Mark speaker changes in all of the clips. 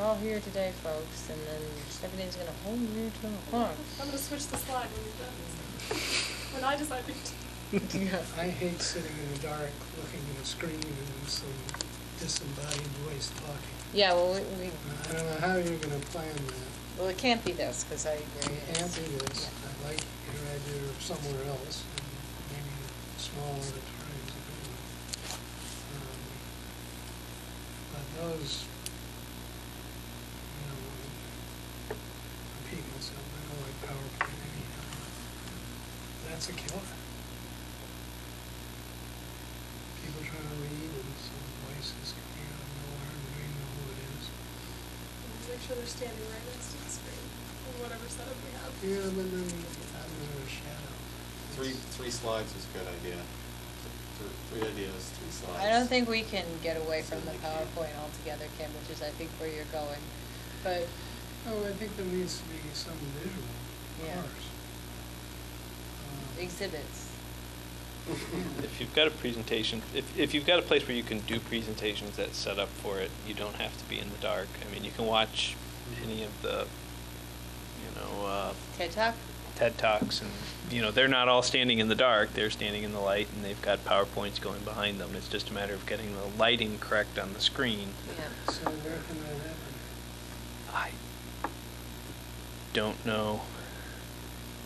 Speaker 1: all here today, folks, and then everything's gonna hold you to the farm.
Speaker 2: I'm gonna switch the slide when you're done. When I decide to.
Speaker 3: I hate sitting in the dark, looking at a screen and some disembodied voice talking.
Speaker 1: Yeah, well, we, we,
Speaker 3: I don't know how you're gonna plan that.
Speaker 1: well, it can't be this, cause I.
Speaker 3: It can't be this. I like your idea of somewhere else, and maybe a small auditorium is a good one. Um, But those, you know, repeat myself, I don't like PowerPoint anyhow. That's a killer. People trying to read and some voices coming out of nowhere, and they know who it is.
Speaker 2: Make sure they're standing right next to the screen, or whatever setup we have.
Speaker 3: Yeah, but then, I'm in a shadow.
Speaker 4: Three, three slides is a good idea. Th- Three ideas, three slides.
Speaker 1: I don't think we can get away from the
Speaker 4: Certainly can't.
Speaker 1: PowerPoint altogether, Kim, which is I think where you're going, but,
Speaker 3: Oh, I think there needs to be some visual, of
Speaker 1: Yeah.
Speaker 3: course. Um,
Speaker 1: exhibits.
Speaker 5: If you've got a presentation, if, if you've got a place where you can do presentations that's set up for it, you don't have to be in the dark. I mean, you can watch any of the, you know, uh,
Speaker 1: TED Talk?
Speaker 5: TED Talks and, you know, they're not all standing in the dark, they're standing in the light and they've got PowerPoints going behind them. It's just a matter of getting the lighting correct on the screen.
Speaker 1: Yeah.
Speaker 3: Um, So where can that
Speaker 5: I
Speaker 3: happen?
Speaker 5: don't know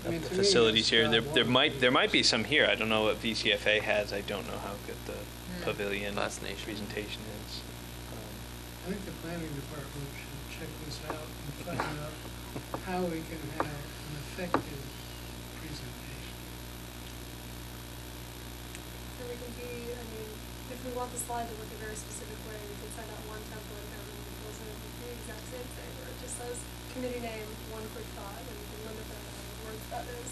Speaker 3: I mean,
Speaker 5: of the
Speaker 3: to me,
Speaker 5: facilities here.
Speaker 3: that's not
Speaker 5: There,
Speaker 3: one
Speaker 5: there
Speaker 3: of
Speaker 5: might,
Speaker 3: the
Speaker 5: there might be
Speaker 3: reasons.
Speaker 5: some here. I don't know what VCFA has. I don't know how good
Speaker 1: Hmm.
Speaker 5: the pavilion
Speaker 6: Last Nation.
Speaker 5: presentation is. Um,
Speaker 3: I think the planning department should check this out and find out how we can have an effective presentation.
Speaker 2: And we can be, I mean, if we want the slide to look a very specific way, we can send out one template and everyone fills in with the exact same thing, where it just says committee name, one quick thought, and we can limit the amount of words that is.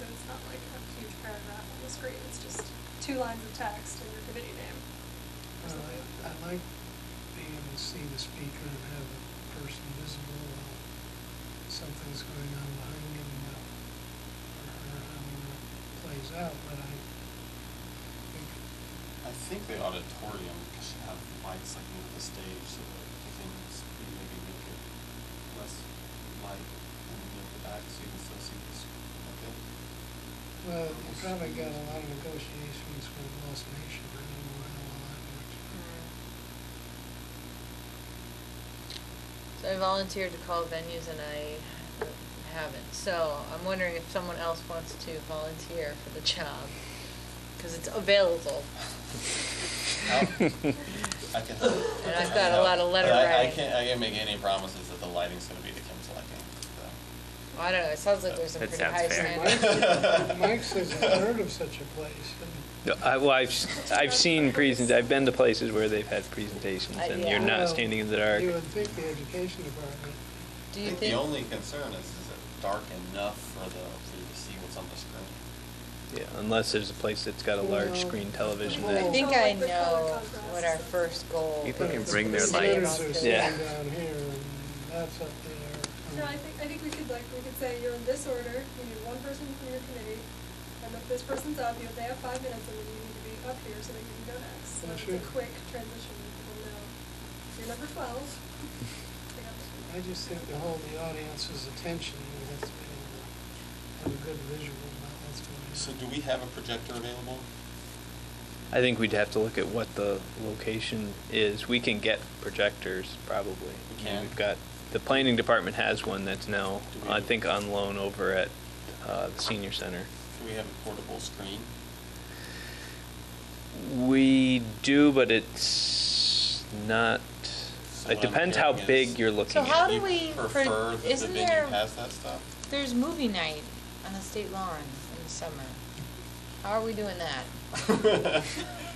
Speaker 2: So it's not like a huge paragraph on the screen, it's just two lines of text and your committee name. or
Speaker 3: Uh,
Speaker 2: something.
Speaker 3: I I like being able to see the speaker and have a person visible while something's going on behind him, uh, or her, however it plays out, but I think
Speaker 4: I think the auditorium should have lights like near the stage so that the things maybe make it less light and near the back so you can still see the screen. Okay.
Speaker 3: Well, you probably got a lot of negotiations with Lost Nation, I don't know how all that works.
Speaker 1: So I volunteered to call venues and I haven't, so I'm wondering if someone else wants to volunteer for the job, cause it's available.
Speaker 6: Oh.
Speaker 4: I can help.
Speaker 1: And
Speaker 4: I
Speaker 1: I've
Speaker 4: can
Speaker 1: got a
Speaker 4: help.
Speaker 1: lot of letter
Speaker 4: But I- I
Speaker 1: writing.
Speaker 4: can't, I can't make any promises that the lighting's gonna be to Kim's liking, so.
Speaker 1: I don't know, it sounds like there's some
Speaker 6: That
Speaker 1: pretty
Speaker 6: sounds
Speaker 1: high
Speaker 6: fair.
Speaker 1: standards.
Speaker 3: Mike- Mike says, I've heard of such a place, and
Speaker 5: No, I, well, I've, s- I've seen present, I've been to places where they've had presentations
Speaker 1: Uh,
Speaker 5: and
Speaker 1: yeah.
Speaker 5: you're
Speaker 3: Well,
Speaker 5: not standing in the dark.
Speaker 3: you would think the education department,
Speaker 1: Do you
Speaker 4: I think
Speaker 1: think?
Speaker 4: The only concern is, is it dark enough for the, for you to see what's on the screen?
Speaker 5: Yeah, unless there's a place that's got a
Speaker 3: Well,
Speaker 5: large screen television
Speaker 3: well,
Speaker 1: I
Speaker 5: that,
Speaker 1: think
Speaker 2: Oh,
Speaker 1: I
Speaker 2: like the color
Speaker 1: know
Speaker 2: contrast
Speaker 1: what our
Speaker 2: and-
Speaker 1: first goal.
Speaker 6: People
Speaker 1: is.
Speaker 6: can bring their
Speaker 3: the
Speaker 6: lights.
Speaker 3: senators are
Speaker 5: Yeah.
Speaker 3: sitting down here, and that's up there.
Speaker 2: No, I think, I think we could like, we could say you're in this order, you need one person from your committee, and if this person's up, you know, they have five minutes, and then you need to be up here so that you can go next. So
Speaker 3: Well,
Speaker 2: it's
Speaker 3: sure.
Speaker 2: a quick transition, people know, you're number twelve. They got this one.
Speaker 3: I just think to hold the audience's attention, you have to be able to have a good visual about what's going on.
Speaker 4: So do we have a projector available?
Speaker 5: I think we'd have to look at what the location is. We can get projectors probably.
Speaker 4: We
Speaker 5: I mean,
Speaker 4: can.
Speaker 5: We've got, the planning department has one that's now,
Speaker 4: Do we-
Speaker 5: I think, on loan over at, uh, the senior center.
Speaker 4: Do we have a portable screen?
Speaker 5: We do, but it's not,
Speaker 4: So
Speaker 5: it
Speaker 4: what I'm
Speaker 5: depends how
Speaker 4: hearing is-
Speaker 5: big you're looking
Speaker 1: So
Speaker 5: at.
Speaker 1: how do
Speaker 4: You
Speaker 1: we pro-
Speaker 4: Prefer that the
Speaker 1: isn't
Speaker 4: venue
Speaker 1: there-
Speaker 4: has that stuff?
Speaker 1: There's movie night on the state lawn in the summer. How are we doing that?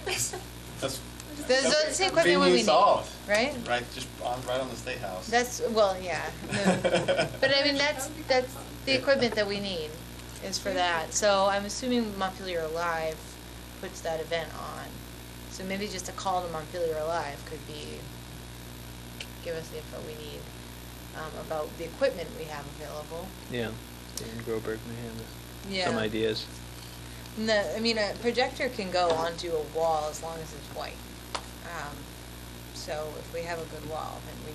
Speaker 4: That's.
Speaker 1: That's what-
Speaker 4: that's
Speaker 1: see, equipment we
Speaker 4: venue
Speaker 1: need,
Speaker 4: solved.
Speaker 1: right?
Speaker 4: Right, just on, right on the state house.
Speaker 1: That's, well, yeah. no. But I mean, that's, that's the equipment that we need is for that. So I'm assuming Montpelier Live puts that event on. So maybe just a call to Montpelier Live could be, give us the info we need um, about the equipment we have available.
Speaker 5: Yeah, Dan Groberg may have
Speaker 1: Yeah.
Speaker 5: some ideas.
Speaker 1: No, I mean, a projector can go onto a wall as long as it's white. Um, so if we have a good wall, then we